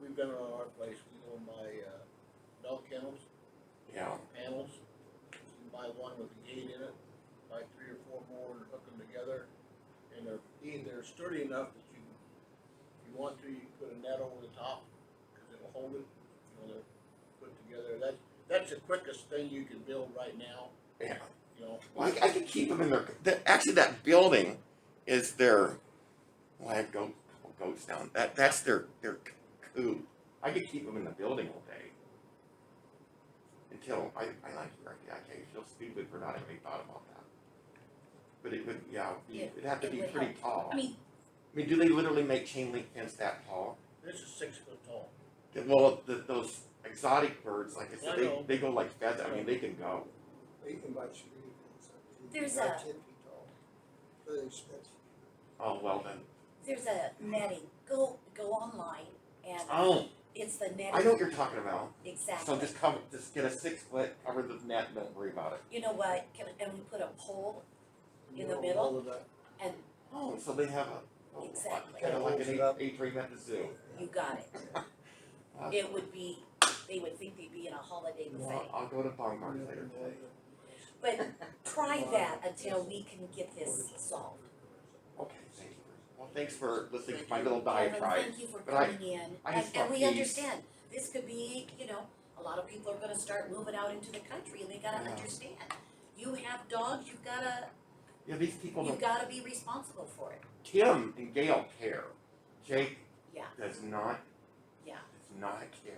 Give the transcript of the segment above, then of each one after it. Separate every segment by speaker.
Speaker 1: we've done it on our place, we go and buy, uh, bell kennels,
Speaker 2: Yeah,
Speaker 1: panels. You can buy one with a gate in it, buy three or four more and hook them together. And they're, e- they're sturdy enough that you, if you want to, you can put a net over the top, cause it'll hold it, you know, they're put together. That's, that's the quickest thing you can build right now,
Speaker 2: yeah.
Speaker 1: you know,
Speaker 2: Well, I, I could keep them in their. The, actually, that building is their. Well, I have goat, couple goats down. That that's their their coop. I could keep them in the building all day. Until I, I like your idea. I can't feel stupid for not having thought about that. But it would yeah. it'd be-
Speaker 3: Yeah,
Speaker 2: it'd have to
Speaker 3: it
Speaker 2: be
Speaker 3: would
Speaker 2: pretty tall.
Speaker 3: I mean,
Speaker 2: I mean, do they literally make chain link fence that tall?
Speaker 1: this is six foot tall.
Speaker 2: Th- Well, the, those exotic birds, like I
Speaker 1: I
Speaker 2: said,
Speaker 1: know.
Speaker 2: they, they go like feathers. I mean, they can go.
Speaker 4: They can buy security fence up to
Speaker 3: There's
Speaker 4: about
Speaker 3: a-
Speaker 4: ten feet tall. They're expensive.
Speaker 2: Oh well then.
Speaker 3: there's a netting, go, go online and
Speaker 2: Oh,
Speaker 3: it's the
Speaker 2: I know
Speaker 3: netting,
Speaker 2: what you're talking about. So
Speaker 3: exactly.
Speaker 2: just cover, just get a six foot, cover the net, and don't worry about it.
Speaker 3: You know what, can, and we put a pole In the
Speaker 4: You know,
Speaker 3: middle?
Speaker 4: all of that.
Speaker 3: and
Speaker 2: Oh, so they have a, oh,
Speaker 3: Exactly.
Speaker 2: kind of like
Speaker 4: Holds
Speaker 2: an
Speaker 4: it
Speaker 2: eight,
Speaker 4: up.
Speaker 2: atrium at the zoo.
Speaker 3: you got it.
Speaker 2: Uh,
Speaker 3: It would be, they would think they'd be in a holiday
Speaker 2: well,
Speaker 3: buffet.
Speaker 2: I'll, I'll go to Baumgart's
Speaker 4: Yeah,
Speaker 2: later
Speaker 4: and all
Speaker 2: today.
Speaker 4: that.
Speaker 3: But try that until we can get this solved.
Speaker 2: Okay, thank you. Well, thanks for listening to my
Speaker 1: Thank
Speaker 2: little
Speaker 3: Kevin,
Speaker 2: diatribe.
Speaker 3: thank you for
Speaker 2: but I-
Speaker 3: coming in,
Speaker 2: I
Speaker 3: and,
Speaker 2: just
Speaker 3: and
Speaker 2: want
Speaker 3: we
Speaker 2: these-
Speaker 3: understand, this could be, you know, a lot of people are gonna start moving out into the country and they gotta
Speaker 2: Yeah.
Speaker 3: understand. You have dogs, you gotta,
Speaker 2: Yeah, these people
Speaker 3: you
Speaker 2: don't,
Speaker 3: gotta be responsible for it,
Speaker 2: Tim and Gail care. Jake
Speaker 3: yeah,
Speaker 2: does not,
Speaker 3: yeah,
Speaker 2: does not care.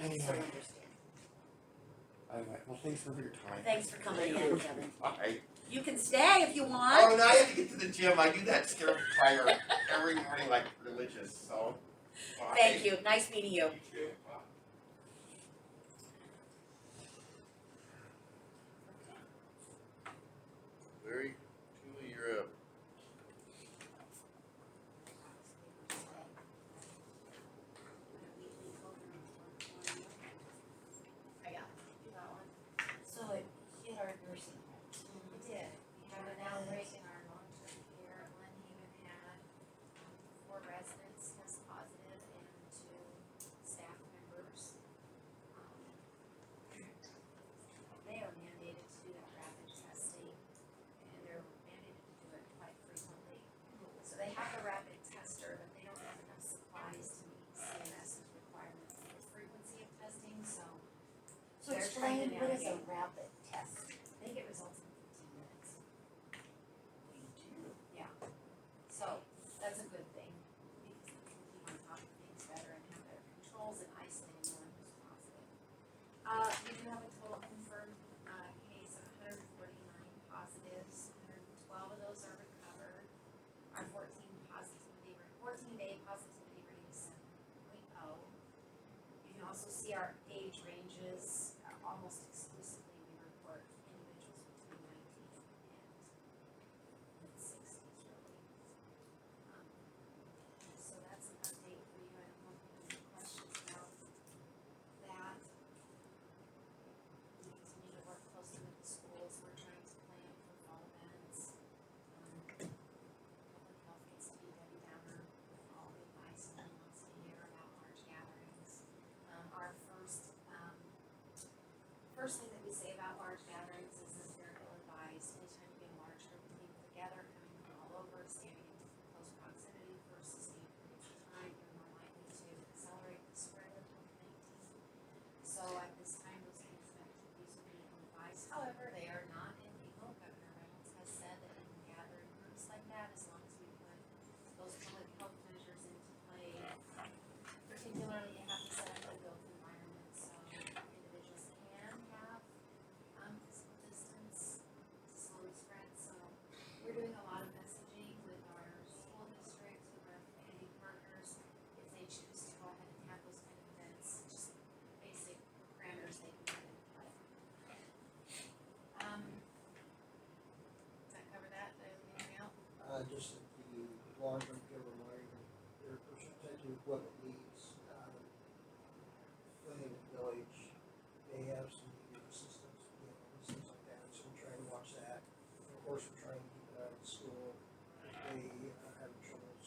Speaker 3: and you still
Speaker 2: Anyway.
Speaker 3: understand.
Speaker 2: All right, well, thanks for your time.
Speaker 3: Thanks for coming in, Kevin.
Speaker 2: Bye.
Speaker 3: You can stay if you
Speaker 2: Oh,
Speaker 3: want.
Speaker 2: now I have to get to the gym. I do that stir fire every morning like religious, so. bye.
Speaker 3: Thank you, nice meeting you.
Speaker 2: Yeah.
Speaker 1: Larry, Julie, you're up.
Speaker 3: I got that one. So it hit our nursing home.
Speaker 5: It did, we have an outbreak in our long-term care, one human had, um, four residents test positive and two staff members. Um, They are mandated to do that rapid testing, and they're mandated to do it quite frequently. So they have a rapid tester, but they don't have enough supplies to meet CMS's requirements for frequency of testing, so
Speaker 3: So
Speaker 5: They're
Speaker 3: explain
Speaker 5: trying to
Speaker 3: what is a
Speaker 5: navigate.
Speaker 3: rapid test?
Speaker 5: they get results in fifteen minutes.
Speaker 3: They do.
Speaker 5: So that's a good thing, because we can keep on top of things better and have better controls and isolate anyone who's positive. Uh, we do have a total confirmed, uh, case of hundred and forty-nine positives, hundred and twelve of those are recovered. Our fourteen positivity, fourteen day positivity rate is seven point oh. You can also see our age ranges, uh, almost exclusively we report individuals between nineteen and sixties really. Um, So that's an update for you, I don't know if you have any questions about that. We continue to work closely with the schools, we're trying to plan for fall events. Um, Public health gets to be Debbie Downer, with all the advice that he wants to hear about large gatherings. Um, our first, um, first thing that we say about large gatherings is that they're ill advised, anytime you get a large group of people together, coming from all over, standing in close proximity for sustained periods of time, you're more likely to accelerate the spread of COVID nineteen. So at this time, those kinds of activities would be ill advised, however, they are not illegal, Governor Reynolds has said that you can gather in groups like that, as long as we put those public health measures into play, particularly you have to set up a built environment, so individuals can have, um, physical distance to slow the spread, so we're doing a lot of messaging with our school districts, with our community partners, if they choose to go ahead and have those kind of events, just basic parameters they can put in play. Um, does that cover that, Did I leave anything out?
Speaker 4: Uh, just that the long-term care reminder, their percentage of equipment uh,